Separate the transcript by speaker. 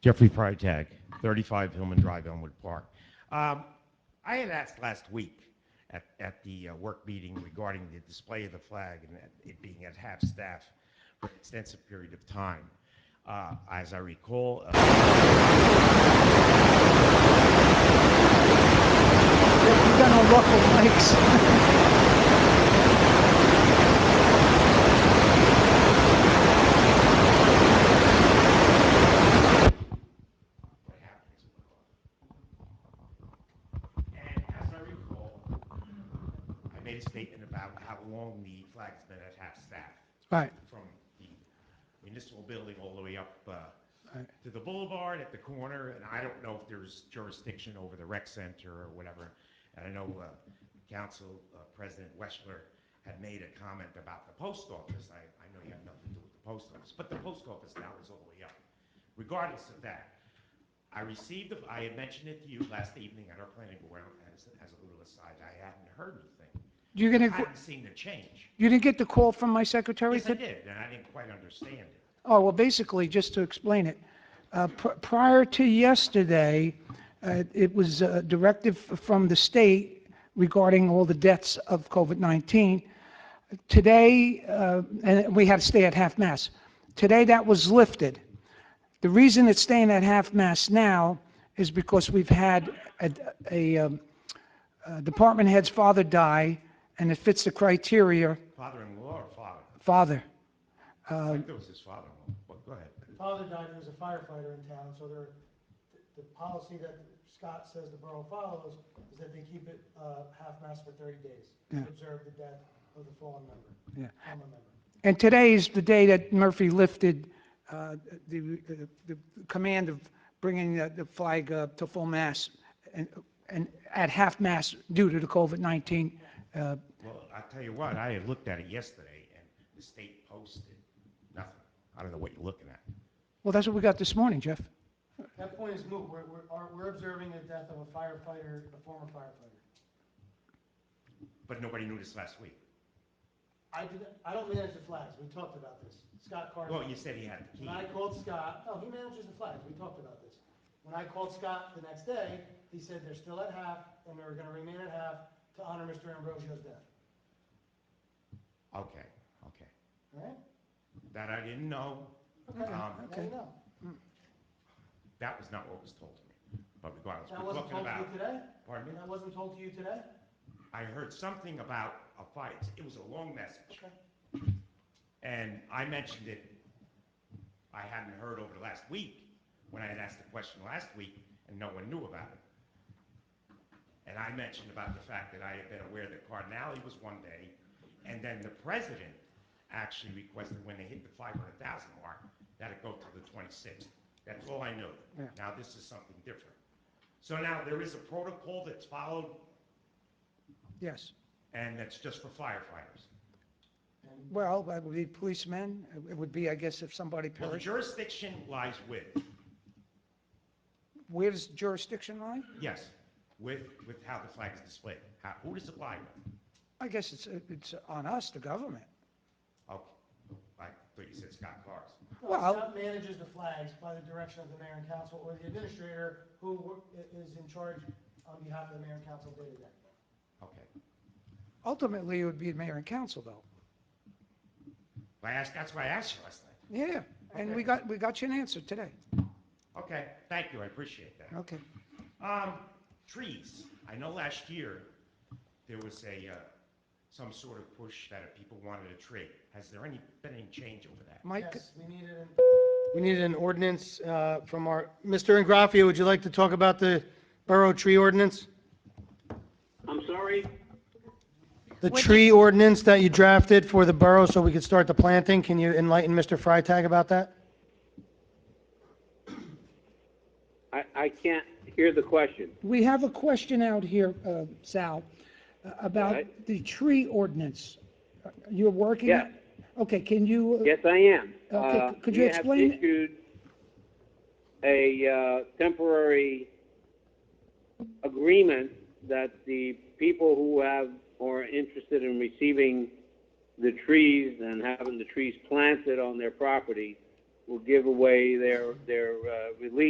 Speaker 1: Jeffrey Prytag, 35 Hillman Drive, Elmwood Park. Um, I had asked last week at, at the uh, work meeting regarding the display of the flag and that it being at half-staff for an extensive period of time. Uh, As I recall, uh,
Speaker 2: We've done our local mics.
Speaker 1: what happens. And as I recall, I made a statement about how long the flag's been at half-staff.
Speaker 2: Right,
Speaker 1: from the municipal building all the way up uh,
Speaker 2: Right.
Speaker 1: to the boulevard at the corner, and I don't know if there's jurisdiction over the rec center or whatever. And I know uh, Council uh, President Westler had made a comment about the post office. I, I know you have nothing to do with the post office, but the post office now is all the way up. Regardless of that, I received, the- I had mentioned it to you last evening at our planning board as, as a little aside. I hadn't heard anything.
Speaker 2: you're
Speaker 1: I
Speaker 2: gonna,
Speaker 1: hadn't seen the change.
Speaker 2: you didn't get the call from my secretary
Speaker 1: Yes, I
Speaker 2: today?
Speaker 1: did, and I didn't quite understand it.
Speaker 2: Oh, well, basically, just to explain it, uh, pr- prior to yesterday, uh, it was a directive f- from the state regarding all the deaths of COVID-19. Today, uh, and we had to stay at half-mast. Today, that was lifted. The reason it's staying at half-mast now is because we've had a- a um, uh, department head's father die, and it fits the criteria,
Speaker 1: Father-in-law or father?
Speaker 2: father.
Speaker 1: I think it was his father-in-law, but go ahead.
Speaker 3: father died, who was a firefighter in town, so they're, the, the policy that Scott says the borough follows is that they keep it, uh, half-mast for thirty days, to
Speaker 2: Yeah.
Speaker 3: observe the death of the fallen member.
Speaker 2: Yeah.
Speaker 3: Former member.
Speaker 2: And today is the day that Murphy lifted uh, the the command of bringing the the flag uh, to full mast and and at half mast due to the COVID-19. uh,
Speaker 1: Well, i tell you what, I had looked at it yesterday, and the state posted nothing. I don't know what you're looking at.
Speaker 2: Well, that's what we got this morning, Jeff.
Speaker 3: That point is moot, we're, we're, are- we're observing the death of a firefighter, a former firefighter.
Speaker 1: But nobody knew this last week.
Speaker 3: I did, I don't manage the flags, we talked about this, Scott Carter.
Speaker 1: Well, you said he had the key.
Speaker 3: When I called Scott, no, he manages the flags, we talked about this. When I called Scott the next day, he said they're still at half, and they're gonna remain at half to honor Mr. Ambrosio's death,
Speaker 1: Okay, okay.
Speaker 3: all right?
Speaker 1: That I didn't know.
Speaker 3: Okay, now
Speaker 1: Um,
Speaker 3: you know.
Speaker 1: That was not what was told to me. But regardless,
Speaker 3: That
Speaker 1: we're
Speaker 3: wasn't
Speaker 1: talking
Speaker 3: told to
Speaker 1: about,
Speaker 3: you today?
Speaker 1: pardon me?
Speaker 3: That wasn't told to you today?
Speaker 1: I heard something about a fight. It was a long message.
Speaker 3: Okay.
Speaker 1: And I mentioned it, I hadn't heard over the last week, when I had asked the question last week, and no one knew about it. And I mentioned about the fact that I had been aware that Cardinale was one day, and then the president actually requested when they hit the five hundred thousand mark, that it go to the twenty-sixth. That's all I knew.
Speaker 2: Yeah.
Speaker 1: Now, this is something different. So now, there is a protocol that's followed,
Speaker 2: Yes.
Speaker 1: and that's just for firefighters.
Speaker 3: And
Speaker 2: Well, that would be policemen. It would be, I guess, if somebody
Speaker 1: Well, the
Speaker 2: perished.
Speaker 1: jurisdiction lies with,
Speaker 2: Where does jurisdiction lie?
Speaker 1: yes, with, with how the flag is displayed. How, who does it lie with?
Speaker 2: I guess it's it's on us, the government.
Speaker 1: Okay, I thought you said Scott Clark's.
Speaker 3: no,
Speaker 2: Well-
Speaker 3: Scott manages the flags by the direction of the mayor and council or the administrator who wor- i- is in charge on behalf of the mayor and council day to day.
Speaker 1: Okay.
Speaker 2: Ultimately, it would be the mayor and council, though.
Speaker 1: I asked, that's why I asked you last night.
Speaker 2: Yeah, and
Speaker 1: Okay.
Speaker 2: we got, we got you an answer today.
Speaker 1: Okay, thank you, I appreciate that.
Speaker 2: Okay.
Speaker 1: Um, trees. I know last year, there was a, uh, some sort of push that if people wanted a tree. Has there any, been any change over that?
Speaker 2: Mike?
Speaker 3: Yes, we needed an. We needed an ordinance uh, from our, Mr. Ingraffia, would you like to talk about the borough tree ordinance?
Speaker 4: I'm sorry?
Speaker 3: The tree ordinance that you drafted for the borough so we could start the planting, can you enlighten Mr. Freitag about that?
Speaker 4: I, I can't hear the question.
Speaker 2: We have a question out here, uh, Sal, uh, about
Speaker 4: Right.
Speaker 2: the tree ordinance. Uh, You're working?
Speaker 4: Yeah.
Speaker 2: Okay, can you? uh,
Speaker 4: Yes, I am.
Speaker 2: Okay,
Speaker 4: Uh,
Speaker 2: could you explain
Speaker 4: We
Speaker 2: it?
Speaker 4: have issued a uh, temporary agreement that the people who have, or are interested in receiving the trees and having the trees planted on their property will give away their, their uh, release